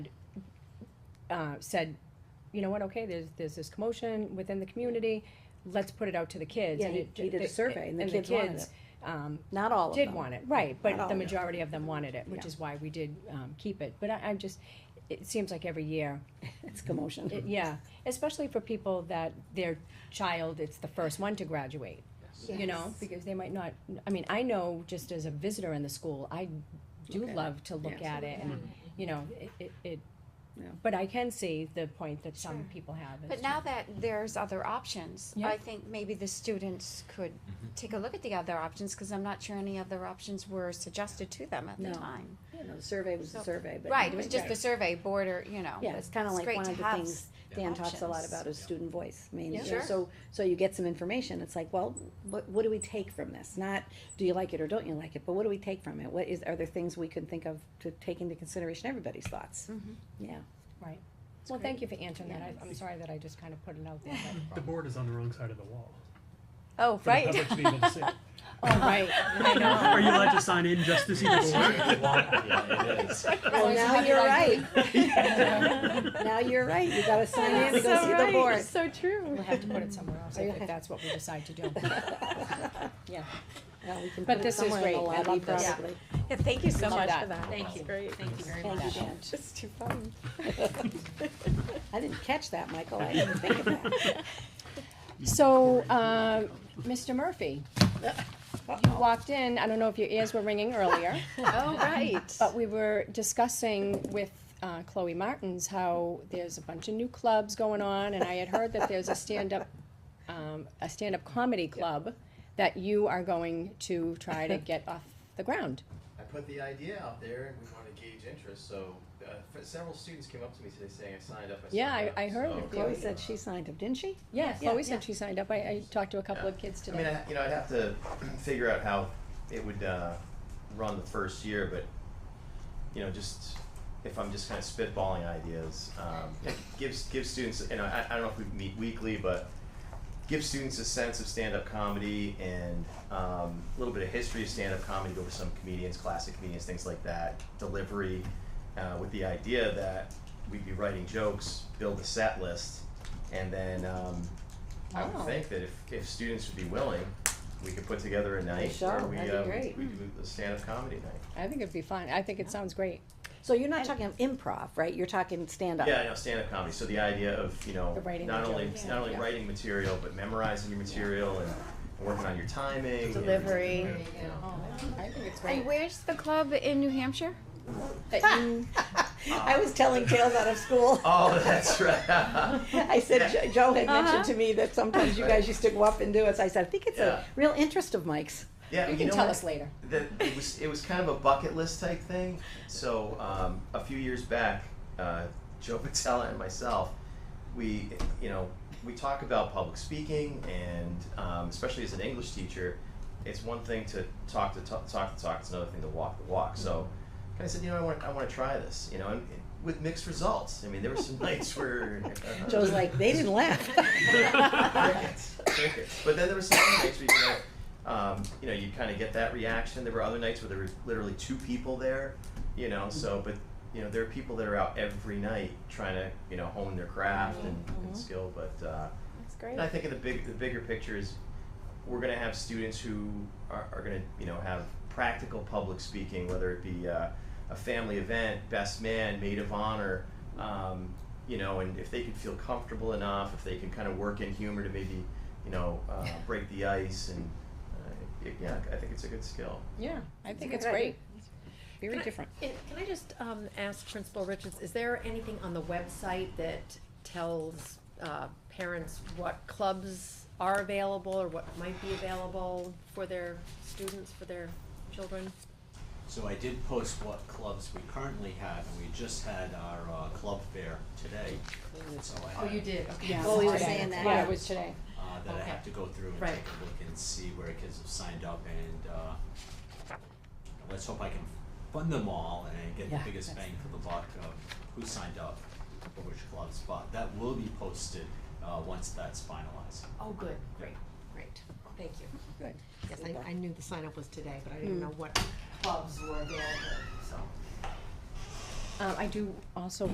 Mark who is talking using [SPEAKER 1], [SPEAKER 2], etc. [SPEAKER 1] uh, said, you know what, okay, there's, there's this commotion within the community, let's put it out to the kids.
[SPEAKER 2] Yeah,
[SPEAKER 1] And
[SPEAKER 2] he-
[SPEAKER 1] it-
[SPEAKER 2] he did a
[SPEAKER 1] it-
[SPEAKER 2] survey and the kids wanted
[SPEAKER 1] kids, um,
[SPEAKER 2] Not all of them.
[SPEAKER 1] did want it, right, but
[SPEAKER 2] all
[SPEAKER 1] the
[SPEAKER 2] of
[SPEAKER 1] majority of them wanted it, which
[SPEAKER 2] Yeah.
[SPEAKER 1] is why we did, um, keep it. But I, I'm just, it seems like every year,
[SPEAKER 2] It's commotion.
[SPEAKER 1] it- yeah, especially for people that their child, it's the first one to graduate you know, because they might not, I mean, I know just as a visitor in the school, I do
[SPEAKER 2] Look at it.
[SPEAKER 1] love to look
[SPEAKER 2] Yeah.
[SPEAKER 1] at it and, you know, it- it, it,
[SPEAKER 2] Yeah.
[SPEAKER 1] but I can see the point that some people have. is
[SPEAKER 3] But now that there's other options,
[SPEAKER 1] Yeah.
[SPEAKER 3] I think maybe the students could take a look at the other options, cause I'm not sure any other options were suggested to them at the
[SPEAKER 2] No.
[SPEAKER 3] time.
[SPEAKER 2] You know, the survey was the
[SPEAKER 3] So-
[SPEAKER 2] survey, but.
[SPEAKER 3] Right, it was just
[SPEAKER 2] Right.
[SPEAKER 3] the survey board or, you know.
[SPEAKER 2] Yeah, it's kinda like
[SPEAKER 3] great
[SPEAKER 2] one
[SPEAKER 3] to
[SPEAKER 2] of the
[SPEAKER 3] have
[SPEAKER 2] things Dan talks a lot
[SPEAKER 3] options.
[SPEAKER 2] about is student voice. I mean,
[SPEAKER 1] Yeah.
[SPEAKER 2] you know,
[SPEAKER 3] Sure.
[SPEAKER 2] so, so you get some information, it's like, well, what, what do we take from this? Not, do you like it or don't you like it, but what do we take from it? What is, are there things we can think of to take into consideration everybody's thoughts?
[SPEAKER 3] Mhm.
[SPEAKER 2] Yeah.
[SPEAKER 1] Well, thank you for answering that, I- I'm sorry that I just kind of put it out there,
[SPEAKER 4] The board is on the wrong side of the wall.
[SPEAKER 3] Oh,
[SPEAKER 4] for the
[SPEAKER 3] right.
[SPEAKER 4] public to be able to see.
[SPEAKER 1] but, oh, right, I know.
[SPEAKER 4] Are you allowed to sign in just to see the
[SPEAKER 1] Otherwise you
[SPEAKER 2] Well, now
[SPEAKER 1] have
[SPEAKER 2] you're
[SPEAKER 1] your
[SPEAKER 2] right,
[SPEAKER 4] board?
[SPEAKER 2] now you're right, you gotta sign in to go
[SPEAKER 3] So
[SPEAKER 2] see the
[SPEAKER 3] right,
[SPEAKER 2] board.
[SPEAKER 3] So true.
[SPEAKER 1] We'll have to put it somewhere else,
[SPEAKER 2] Are you
[SPEAKER 1] if
[SPEAKER 2] okay?
[SPEAKER 1] if that's what we decide to do. Yeah.
[SPEAKER 2] Well, we can
[SPEAKER 1] But
[SPEAKER 2] put it
[SPEAKER 1] this is
[SPEAKER 2] somewhere in
[SPEAKER 1] great.
[SPEAKER 2] the
[SPEAKER 1] I
[SPEAKER 2] lobby,
[SPEAKER 1] love this.
[SPEAKER 2] probably.
[SPEAKER 3] Yeah, thank you so
[SPEAKER 1] Appreciate
[SPEAKER 3] much
[SPEAKER 1] that.
[SPEAKER 3] for that.
[SPEAKER 1] Thank you.
[SPEAKER 3] Great.
[SPEAKER 1] Thank you very
[SPEAKER 2] Thank
[SPEAKER 1] much.
[SPEAKER 2] you, Dan.
[SPEAKER 3] It's too fun.
[SPEAKER 2] I didn't catch that, Michael, I didn't think of that.
[SPEAKER 1] So, uh, Mr. Murphy, you walked in, I don't know if your ears were ringing earlier.
[SPEAKER 3] Oh, right.
[SPEAKER 1] But we were discussing with uh, Chloe Martins how there's a bunch of new clubs going on, and I had heard that there's a stand-up, um, a stand-up comedy club that you are going to try to get off the ground.
[SPEAKER 5] I put the idea out there and we want to gauge interest, so uh, f- several students came up to me today saying I signed up. I
[SPEAKER 1] Yeah,
[SPEAKER 5] signed
[SPEAKER 1] I-
[SPEAKER 5] up,"
[SPEAKER 1] I heard
[SPEAKER 5] so-
[SPEAKER 1] of
[SPEAKER 2] Chloe said she signed up, didn't she?
[SPEAKER 1] Yeah, Chloe
[SPEAKER 2] yeah.
[SPEAKER 1] said she signed up. I, I talked to a couple of kids
[SPEAKER 5] I mean,
[SPEAKER 1] today.
[SPEAKER 5] I, you know, I'd have to figure out how it would uh, run the first year, but you know, just if I'm just kind of spitballing ideas, um, it gives gives students. You know, I, I don't know if we meet weekly, but give students a sense of stand-up comedy and um, a little bit of history of stand-up comedy. Go over some comedians, classic comedians, things like that. Delivery, uh, with the idea that we'd be writing jokes, build a set list, and then um, I
[SPEAKER 1] Wow.
[SPEAKER 5] would think that if, if students would be willing, we could put together a night
[SPEAKER 2] Sure,
[SPEAKER 5] where we
[SPEAKER 2] that'd be
[SPEAKER 5] uh,
[SPEAKER 2] great.
[SPEAKER 5] we do a stand-up comedy night.
[SPEAKER 1] I think it'd be fun. I think it sounds great.
[SPEAKER 2] So you're not talking improv, right? You're talking stand-up.
[SPEAKER 5] Yeah, I know stand-up comedy. So the idea of you know
[SPEAKER 1] The writing
[SPEAKER 5] not
[SPEAKER 1] of
[SPEAKER 5] only
[SPEAKER 1] jokes.
[SPEAKER 5] not only writing material but memorizing your material and, and working on your timing, and,
[SPEAKER 3] Delivery.
[SPEAKER 5] you know.
[SPEAKER 1] I think it's
[SPEAKER 3] And
[SPEAKER 1] great.
[SPEAKER 3] where's the club in New Hampshire?
[SPEAKER 2] Mm. I was telling tales out of school.
[SPEAKER 5] Oh, that's right.
[SPEAKER 2] I said, Jo- Joe had
[SPEAKER 3] Uh-huh.
[SPEAKER 2] mentioned to me that sometimes you guys used to go up and do it. So I said, I think it's a
[SPEAKER 5] Yeah.
[SPEAKER 2] real interest of Mike's.
[SPEAKER 5] yeah,
[SPEAKER 1] You
[SPEAKER 5] you
[SPEAKER 1] can
[SPEAKER 5] know
[SPEAKER 1] tell
[SPEAKER 5] what?
[SPEAKER 1] us later.
[SPEAKER 5] that it was it was kind of a bucket list type thing. So um, a few years back, uh, Joe Patella and myself, we you know we talk about public speaking, and um, especially as an English teacher, it's one thing to talk to talk, talk to talk. It's another thing to walk the walk. So kind of said, you know, I want I want to try this. You know, and, and with mixed results. I mean, there were some nights where uh,
[SPEAKER 2] Joe's like, they didn't laugh.
[SPEAKER 5] Uh-huh. crickets, crickets. But then there were some nights where you know, um, you know, you kind of get that reaction. There were other nights where there were literally two people there, you know. So, but you know, there are people that are out every night trying to you know hone their craft and, and skill. But uh,
[SPEAKER 3] That's
[SPEAKER 5] and I think in the big, the bigger picture is we're going to have students who are, are going to, you know, have practical public speaking, whether it be uh, a family event, best man, maid of honor, um, you know, and if they can feel comfortable enough, if they can kind of work in humor to maybe, you know, uh, break the ice and. uh, it- Yeah, I think it's a good skill.
[SPEAKER 1] Yeah, I think it's
[SPEAKER 2] good
[SPEAKER 1] great.
[SPEAKER 2] idea. Very
[SPEAKER 6] Can I-
[SPEAKER 2] different.
[SPEAKER 6] And can I just um, ask Principal Richards, is there anything on the website that tells uh, parents what clubs are available or what might be available for their students, for their children?
[SPEAKER 7] So I did post what clubs we currently had, and we just had our uh, club fair today. So I had,
[SPEAKER 6] Oh, did,
[SPEAKER 1] Yeah.
[SPEAKER 2] Oh, we were
[SPEAKER 1] Today.
[SPEAKER 2] saying that.
[SPEAKER 1] Yeah, it was today.
[SPEAKER 7] uh, that I
[SPEAKER 6] Okay.
[SPEAKER 7] have to go through and
[SPEAKER 6] Right.
[SPEAKER 7] take a look and see where kids have signed up, and uh, let's hope I can fund them all and get
[SPEAKER 2] Yeah,
[SPEAKER 7] the biggest
[SPEAKER 2] that's-
[SPEAKER 7] bang for the buck of who signed up for which clubs. But that will be posted uh, once that's finalized.
[SPEAKER 6] Oh, good, great, great, thank you. Hmm.
[SPEAKER 2] Good.
[SPEAKER 6] Yes, I, I knew the sign up was today, but I didn't know what clubs were available, so.
[SPEAKER 1] Um, I do also